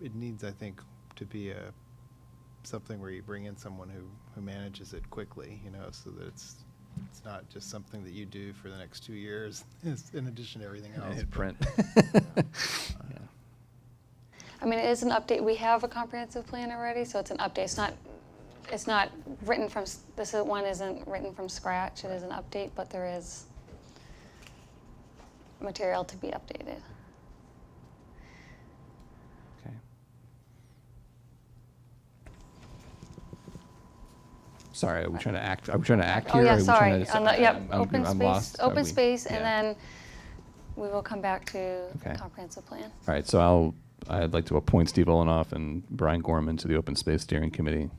it needs, I think, to be a, something where you bring in someone who, who manages it quickly, you know, so that it's, it's not just something that you do for the next two years, it's in addition to everything else. but- Hit print. Oh. Yeah. I mean, it is an update. We have a comprehensive plan already, so it's an update. It's not, it's not written from, s- this is- one isn't written from scratch. It is an update, but there is material to be updated. Okay. Sorry, are we trying to act, are we trying to act Oh, here? yeah, or are we sorry. trying to On deci- the- yep, I'm- I'm- open I'm space, lost. Are open we- space, and yeah. then we will come back to Okay. comprehensive plan. All right, so I'll, I'd like to appoint Steve Olenoff and Brian Gorman to the Open Space Steering Committee.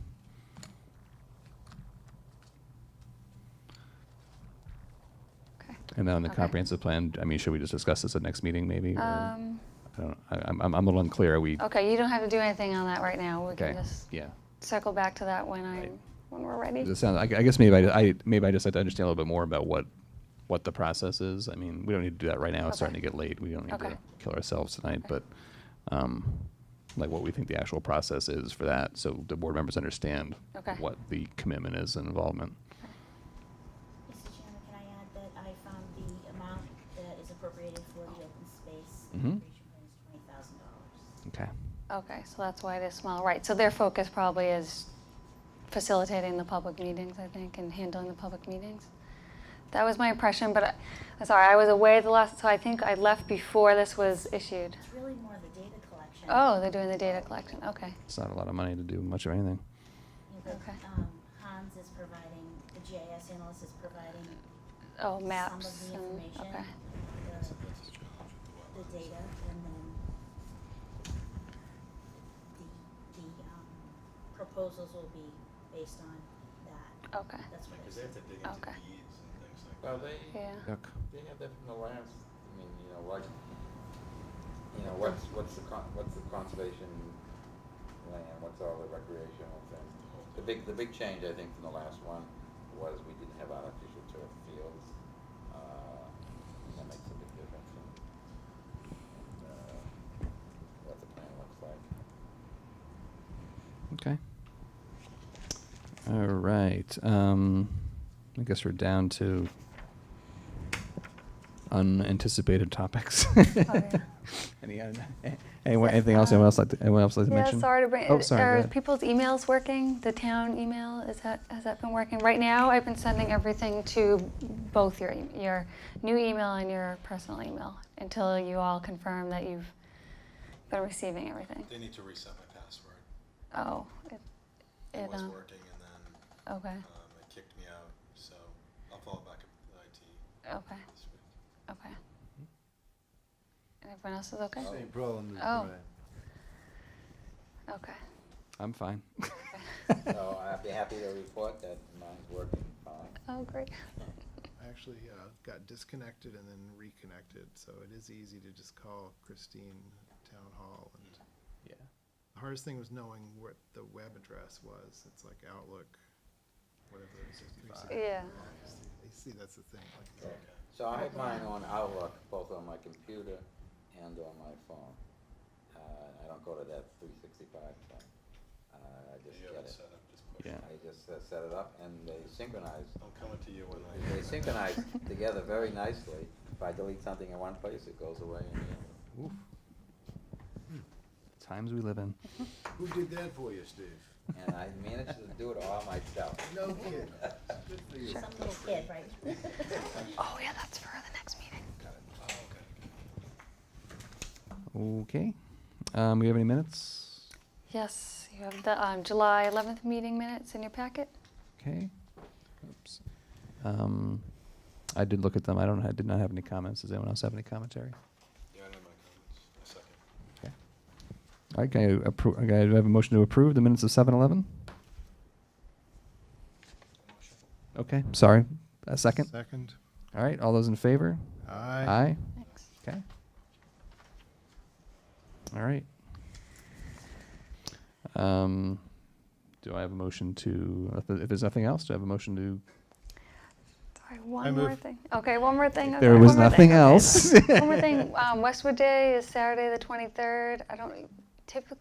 Okay. And then on the Okay. comprehensive plan, I mean, should we just discuss this at next meeting, maybe? or- Um, oh, I don't, I- I'm, I'm a little unclear, are we? Okay, you don't have to do anything on that right now. We can Okay, just yeah. circle back to that when Right. I'm, when we're ready. It sounds, I I guess maybe I, I, maybe I just have to understand a little bit more about what, what the process is. I mean, we don't need to do that right now. It's starting to Okay. get late. We don't need Okay. to kill ourselves tonight, Okay. but, um, like what we think the actual process is for that, so the board members understand Okay. what the commitment is and involvement. Mr. Chairman, can I add that I found the amount that is appropriated for the open space Mhm. recreation plan is twenty thousand dollars. Okay. Okay, so that's why it is small, right, so their focus probably is facilitating the public meetings, I think, and handling the public meetings. That was my impression, but I- I'm sorry, I was away the last, so I think I left before this was issued. It's really more the data collection. Oh, they're doing the data collection, okay, It's not a lot of money to do much of anything. You know, okay. um, Hans is providing, the GIS analyst is providing oh, some maps, of the and, information, okay, the, the data, and then the, the um, proposals will be based on that. okay, That's what it's. Because they have to dig into Okay. the deeds and things like that. Well, they, yeah, they have that from the last, I mean, you know, what, you know, what's, what's the con, what's the conservation land, what's all the recreational things? The big, the big change, I think, from the last one was we didn't have artificial turf fields, uh, and that makes a big difference in, in, uh, what the plan looks like. Okay. All right. Um, I guess we're down to unanticipated topics. Oh, yeah. Any, un- eh, anyone, anything else? Anyone else like to, anyone else like to Yeah, mention? sorry to bring. er, Oh, sorry. go Are ahead. people's emails working? The town email is that has that been working? Right now, I've been sending everything to both your e- your new email and your personal email until you all confirm that you've been receiving everything. They need to reset my password. Oh, it, It it was um, working and then okay, um, it kicked me out, so I'll follow back up with IT okay, this week. okay. And everyone else is okay. Same problem as Oh. Brian. Okay. I'm fine. So I'd be happy to report that mine's working fine. Oh, great. I actually uh, got disconnected and then reconnected, so it is easy to just call Christine Town Hall. And Yeah. the hardest thing was knowing what the web address was. It's like Outlook, whatever. it is, 365. Yeah. You see, that's the thing. Like, it's like- So I have mine on Outlook, both on my computer and on my phone. Uh, I don't go to that three sixty-five thing. Uh, I just You get have it it. set up, just push Yeah. it. I just uh, set it up and they synchronize. I'm coming to you when I. They synchronize together very nicely. If I delete something in one place, it goes away in the other. Oof. Times we live in. Who did that for you, Steve? And I managed to do it all myself. No kidding. Good for you. Some little kid, right? Oh, yeah. That's for the next meeting. Oh, okay. Okay. Um, we have any minutes? Yes, you have the um, July 11th meeting minutes in your packet. Okay. Oops. Um, I did look at them. I don't. I did not have any comments. Does anyone else have any commentary? Yeah, I know my comments. A second. Okay. All right. Can I approve? Okay, do I have a motion to approve the minutes of 7-Eleven? Okay. Sorry. A second. Second. All right. All those in favor? Aye. Aye. Thanks. Okay. All right. Um, do I have a motion to? If there's nothing else, do I have a motion to Sorry, one I more move. thing. Okay, one more thing. I'm There sorry, was one more nothing thing. Okay, else. one more thing. Um, Westwood Day is Saturday the 23rd. I don't typically